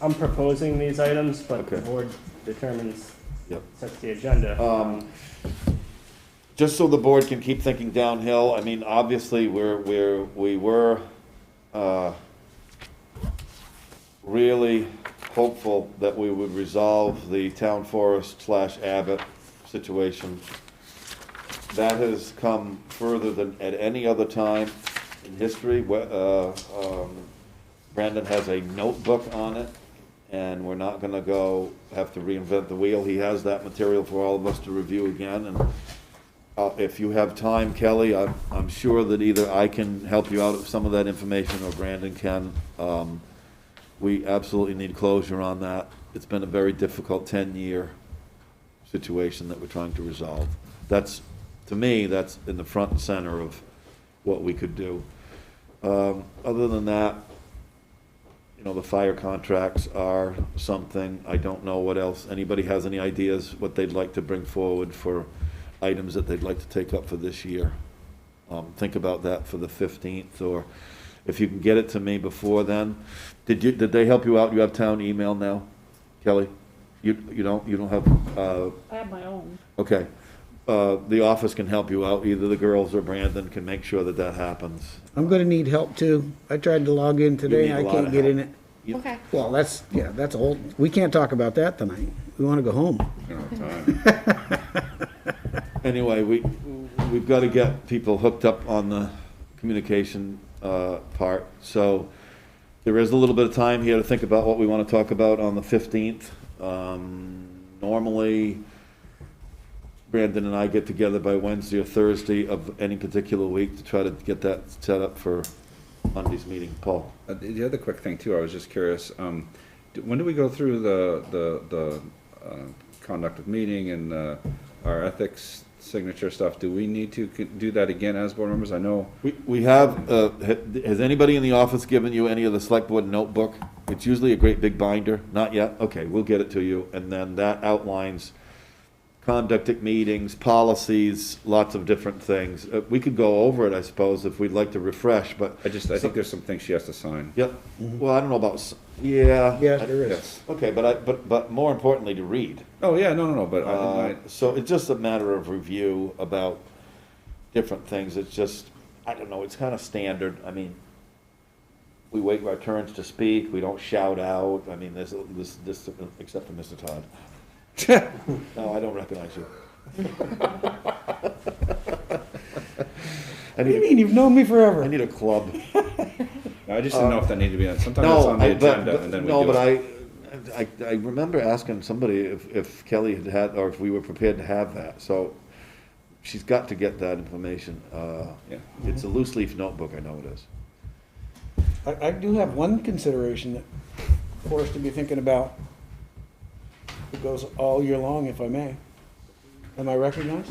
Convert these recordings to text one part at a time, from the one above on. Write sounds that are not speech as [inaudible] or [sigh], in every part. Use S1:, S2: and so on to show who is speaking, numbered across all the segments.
S1: I'm proposing these items, but the
S2: Okay.
S1: board determines,
S2: Yep.
S1: sets the agenda.
S2: Um, Just so the board can keep thinking downhill, I mean, obviously, we're, we're, we were, uh, really hopeful that we would resolve the town forest slash Abbott situation. That has come further than at any other time in history. Wh- uh, um, Brandon has a notebook on it, and we're not gonna go have to reinvent the wheel. He has that material for all of us to review again, and uh, if you have time, Kelly, I'm, I'm sure that either I can help you out with some of that information or Brandon can. Um, we absolutely need closure on that. It's been a very difficult ten-year situation that we're trying to resolve. That's, to me, that's in the front and center of what we could do. Um, other than that, you know, the fire contracts are something, I don't know what else, anybody has any ideas what they'd like to bring forward for items that they'd like to take up for this year? Um, think about that for the fifteenth, or if you can get it to me before then. Did you, did they help you out? You have town email now, Kelly? You, you don't, you don't have, uh,
S3: I have my own.
S2: Okay. Uh, The office can help you out. Either the girls or Brandon can make sure that that happens.
S4: I'm gonna need help too. I tried to log in
S2: need
S4: today,
S2: a
S4: I
S2: lot
S4: can't
S2: of
S4: get in
S2: help.
S4: it.
S2: You-
S5: Okay.
S4: Well, that's, yeah, that's a whole, we can't talk about that tonight. We wanna go home.
S2: Anyway, we, we've got to get people hooked up on the communication uh, part. So there is a little bit of time here to think about what we want to talk about on the 15th. Um, Normally, Brandon and I get together by Wednesday or Thursday of any particular week to try to get that set up for Monday's meeting. Paul?
S6: Uh, The the other quick thing too, I was just curious, um, d- when do we go through the, the, the, uh, conduct of meeting and, uh, our ethics signature stuff? Do we need to c- do that again as board members? I know,
S2: We, we have, uh, ha- has anybody in the office given you any of the select board notebook? It's usually a great big binder. Not yet? Okay, we'll get it to you. And then that outlines conduct at meetings, policies, lots of different things. Uh, we could go over it, I suppose, if we'd like to refresh, but.
S6: I just, I think there's some things she has to sign.
S2: Yep. Well, I don't know about, s- yeah.
S4: Yeah, Mm-hmm. there is. [laughs]
S6: Yes.
S2: Okay, but I, but, but more importantly, to read.
S6: Oh, yeah, no, no, no, but I didn't
S2: Uh,
S6: mind.
S2: So it's just a matter of review about different things. It's just, I don't know, it's kind of standard. I mean, we wait our turns to speak, we don't shout out. I mean, there's, this, this, except for Mr. Todd. No, I don't recognize you. [laughs] I
S4: What do you
S2: need,
S4: mean? You've known me
S2: a- I
S4: forever.
S2: need a club.
S6: I just didn't know if that needed to be on, sometimes it's
S2: No,
S6: on the
S2: I, but,
S6: agenda
S2: but-
S6: and then we do it.
S2: no, but I, I, I remember asking somebody if, if Kelly had had, or if we were prepared to have that, so she's got to get that information. Uh,
S6: Yeah.
S2: It's a loose leaf notebook, I know it is.
S4: I, I do have one consideration that, for us to be thinking about. It goes all year long, if I may. Am I recognized?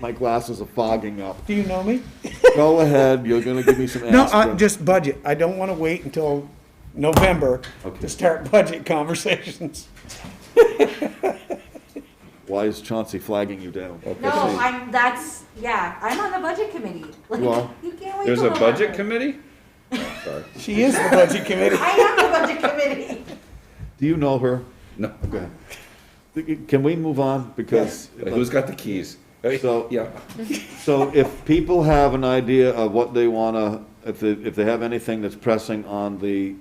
S2: My glasses are fogging up.
S4: Do you know me?
S2: [laughs] Go ahead, you're gonna give me some
S4: No, I,
S2: aspirin.
S4: just budget. I don't wanna wait until November
S2: Okay.
S4: to start [laughs] budget conversations.
S2: Why is Chauncey flagging you down?
S5: No, I'm, that's, yeah, I'm on the budget committee. [laughs] Like,
S2: You are?
S5: You can't wait
S6: There's
S5: till
S6: a budget
S5: November.
S6: committee? Oh, sorry.
S4: She is the budget committee.
S5: I am the budget committee.
S2: Do you know her?
S6: No,
S2: Okay. Can we move on, because.
S6: Like, who's got the keys? Hey,
S2: So-
S6: Yeah,
S2: So if people have an idea of what they wanna, if they, if they have anything that's pressing on the,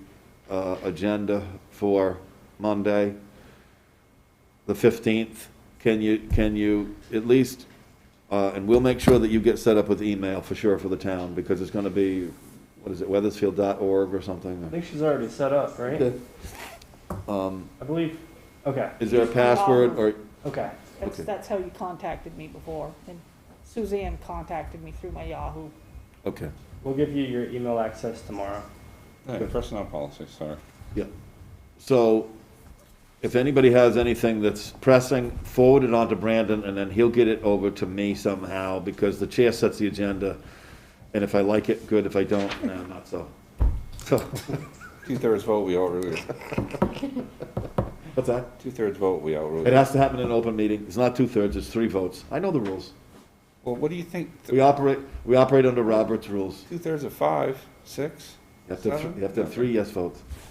S2: uh, agenda for Monday, the fifteenth, can you, can you at least, uh, and we'll make sure that you get set up with email for sure for the town, because it's gonna be, what is it, weathersfield.org or
S1: I
S2: something?
S1: think she's already set up, right? I believe, okay,
S2: Is there a password or,
S1: okay.
S3: That's,
S2: Okay.
S3: that's how you contacted me before. And Suzanne contacted me through my Yahoo.
S2: okay,
S1: We'll give you your email access tomorrow.
S6: Hey, personnel policy, sorry.
S2: yeah. So if anybody has anything that's pressing, forward it on to Brandon, and then he'll get it over to me somehow, because the chair sets the agenda, and if I like it, good, if I don't, no, not so. So,
S6: Two-thirds vote, we outrule,
S2: what's that?
S6: two-thirds vote, we outrule.
S2: It has to happen in an open meeting, it's not two-thirds, it's three votes, I know the rules.
S6: Well, what do you think?
S2: We operate, we operate under Robert's rules.
S6: Two-thirds of five, six?
S2: You have to, have thr- you have to have three yes votes.